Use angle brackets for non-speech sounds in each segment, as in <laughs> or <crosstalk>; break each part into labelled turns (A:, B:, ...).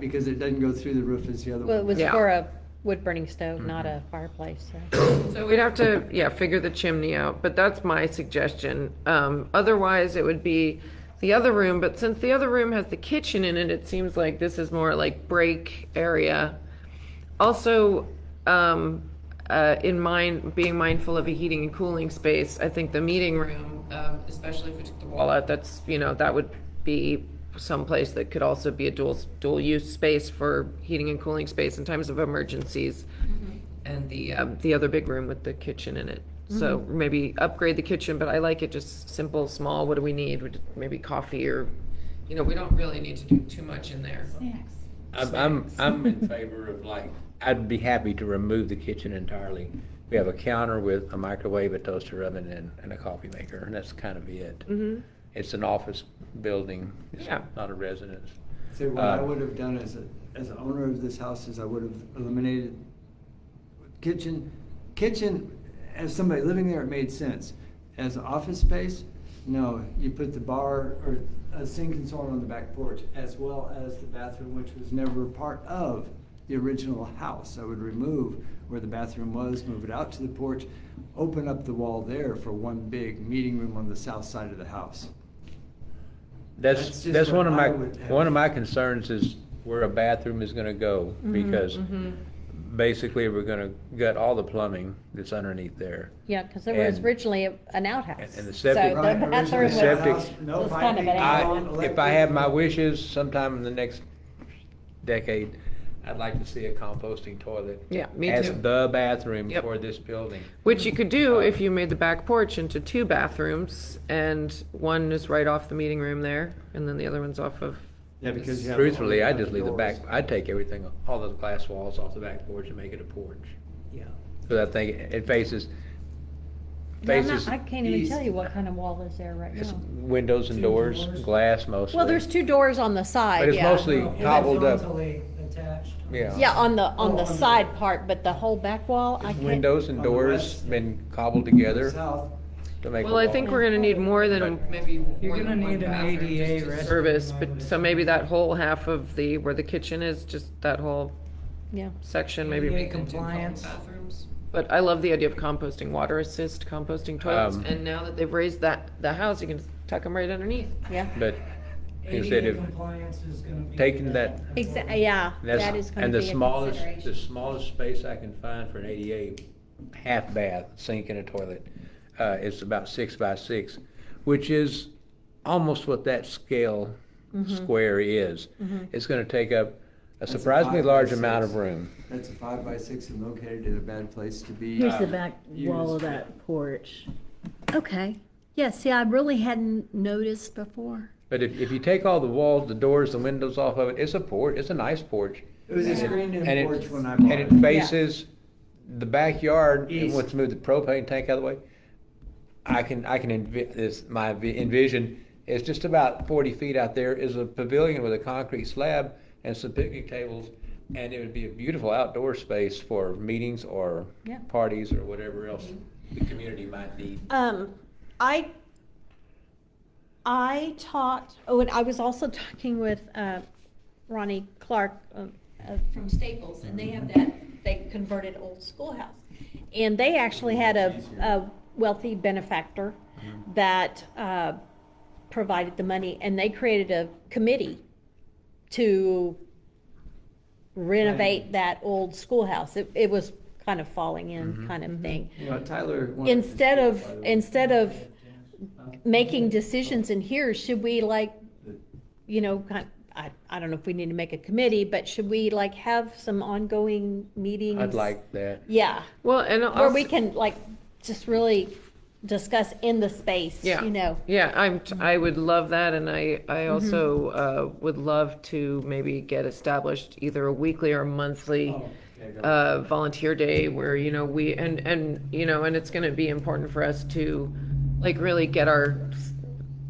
A: because it doesn't go through the roof as the other
B: Well, it
A: one.
B: was
A: does.
C: Yeah.
B: for a wood burning stove, not
D: Mm-hmm.
B: a fireplace, so.
C: So we'd have to, yeah, figure the chimney out, but that's my suggestion. Um, otherwise, it would be the other room, but since the other room has the kitchen in it, it seems like this is more like break area. Also, um, uh, in mind, being mindful of a heating and cooling space, I think the meeting room, um, especially if we took the wall out, that's, you know, that would be someplace that could also be a dual, dual-use space for heating and cooling space in times of emergencies and the um, the other big room with the kitchen in it. So maybe upgrade the kitchen, but I like it just simple, small. What do we need? Would- Maybe coffee or, you know, we don't really need to do too much in there.
E: Snacks.
D: I'm, I'm, I'm in favor of like, I'd be happy to remove the kitchen entirely. We have a counter with a microwave, a toaster oven, and, and a coffee maker, and that's kind of it. It's an office building, it's
C: Yeah.
D: not a residence.
A: So what I
D: Uh,
A: would have done as a, as an owner of this house is I would have eliminated kitchen, kitchen, as somebody living there, it made sense. As office space, no, you put the bar or a sink and so on on the back porch, as well as the bathroom, which was never part of the original house. I would remove where the bathroom was, move it out to the porch, open up the wall there for one big meeting room on the south side of the house. That's
D: That's,
A: just
D: that's
A: what
D: one of
A: I
D: my,
A: would have.
D: one of my concerns is where a bathroom is gonna go, because basically, we're gonna gut all the plumbing that's underneath there.
B: Yeah, because there was
D: And-
B: originally a- an outhouse.
D: and the septic-
B: So the
A: Right, originally
B: bathroom was,
D: the septic-
A: No
B: was kind of an
A: piping,
B: add-on.
A: no
D: I, if I have my wishes, sometime in the next decade, I'd like to see a composting toilet.
C: Yeah, me
D: As
C: too.
D: the bathroom
C: Yep.
D: for this building.
C: Which you could do if you made the back porch into two bathrooms, and one is right off the meeting room there, and then the other one's off of.
A: Yeah, because you have.
D: Truthfully, I just leave the
A: doors.
D: back, I take everything, all those glass walls off the back porch and make it a porch.
A: Yeah.
D: Because I think it faces,
B: Well, I'm
D: faces.
B: not- I can't even
D: east.
B: tell you what kind of wall is there right
D: It's
B: now.
D: windows and
F: Two
D: doors,
F: doors.
D: glass mostly.
B: Well, there's two doors on the
D: But
B: side,
D: it's
B: yeah.
D: mostly cobbled up.
F: Horizontally attached.
D: Yeah.
B: Yeah, on the, on the
F: Oh, on the-
B: side part, but the whole back wall, I can't.
D: Windows and
A: On the
D: doors
A: west.
D: been cobbled together
A: South,
D: to make a
C: Well, I
D: wall.
C: think we're gonna need more than
D: But-
C: maybe
F: You're
C: more
F: gonna
C: than one
F: need an
C: bathroom
F: ADA
C: just to
F: restroom,
C: service,
F: I
C: but
F: would
C: so maybe that whole half of the where the kitchen is, just that whole
B: Yeah.
C: section, maybe
F: ADA
C: make it into
F: compliance.
C: bathrooms. But I love the idea of composting, water assist, composting toilets,
D: Um,
C: and now that they've raised that, the house, you can tuck them right underneath.
B: Yeah.
D: But instead
F: ADA
D: of
F: compliance is gonna be.
D: taking that-
B: Exactly, yeah,
D: That's-
B: that is gonna
D: and
B: be
D: the
B: a
D: smallest,
B: consideration.
D: The smallest space I can find for an ADA half bath, sink and a toilet, uh, is about six by six, which is almost what that scale
B: Mm-hmm.
D: square is. It's gonna take up a
A: That's a
D: surprisingly
A: five by
D: large amount of
A: six.
D: room.
A: that's a five by six and located in a bad place to be.
G: Here's the
A: uh,
G: back wall of
A: used.
G: that porch.
H: Okay. Yeah, see, I really hadn't noticed before.
D: But if, if you take all the walls, the doors, the windows off of it, it's a porch, it's a nice porch.
A: It was a
D: And it- and
A: screened-in
D: it-
A: porch when I
D: And
A: bought
D: it
A: it.
D: faces the backyard, and
A: East.
D: once move the propane tank out of the way, I can, I can envi, this, my vi- envision, is just about forty feet out there is a pavilion with a concrete slab and some picnic tables, and it would be a beautiful outdoor space for meetings or
B: Yeah.
D: parties or whatever else the community might need.
B: Um, I, I talked, oh, and I was also talking with, uh, Ronnie Clark, um, uh, from Staples, and they have that, they converted old schoolhouse. And they actually had a, a wealthy benefactor that, uh, provided the money, and they created a committee to renovate that old schoolhouse. It, it was kind of falling in kind of thing
A: You know, Tyler. wanted to
B: instead
A: speak,
B: of,
A: by the way.
B: instead of making decisions in here, should we like, you know, kind, I, I don't know if we need to make a committee, but should we like have some ongoing meetings?
D: I'd like that.
B: Yeah,
C: Well, and
B: where we
C: also,
B: can like, just really discuss in the space,
C: Yeah.
B: you know?
C: yeah, I'm, t- I would love that, and I, I also, uh, would love to maybe get established either a weekly or a monthly
A: Oh, okay, go.
C: uh, volunteer day where you know we and and you know and it's going to be important for us to like really get our s-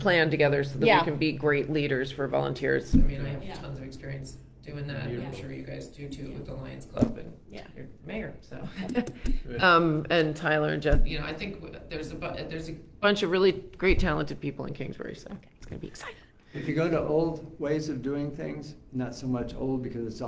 C: plan together so that
B: Yeah.
C: we can be great leaders for volunteers. I mean, I have tons of experience doing that, and I'm sure you guys do too with the Lions Club and
B: Yeah.
C: your mayor.
B: <laughs>
C: So, <laughs>
G: uh,
C: um, and Tyler and Jeff, you know, I think w- there's a bu- there's a bunch of really great talented people in Kingsbury, so it's going to be exciting.
A: if you go to old ways of doing things, not so much old because it's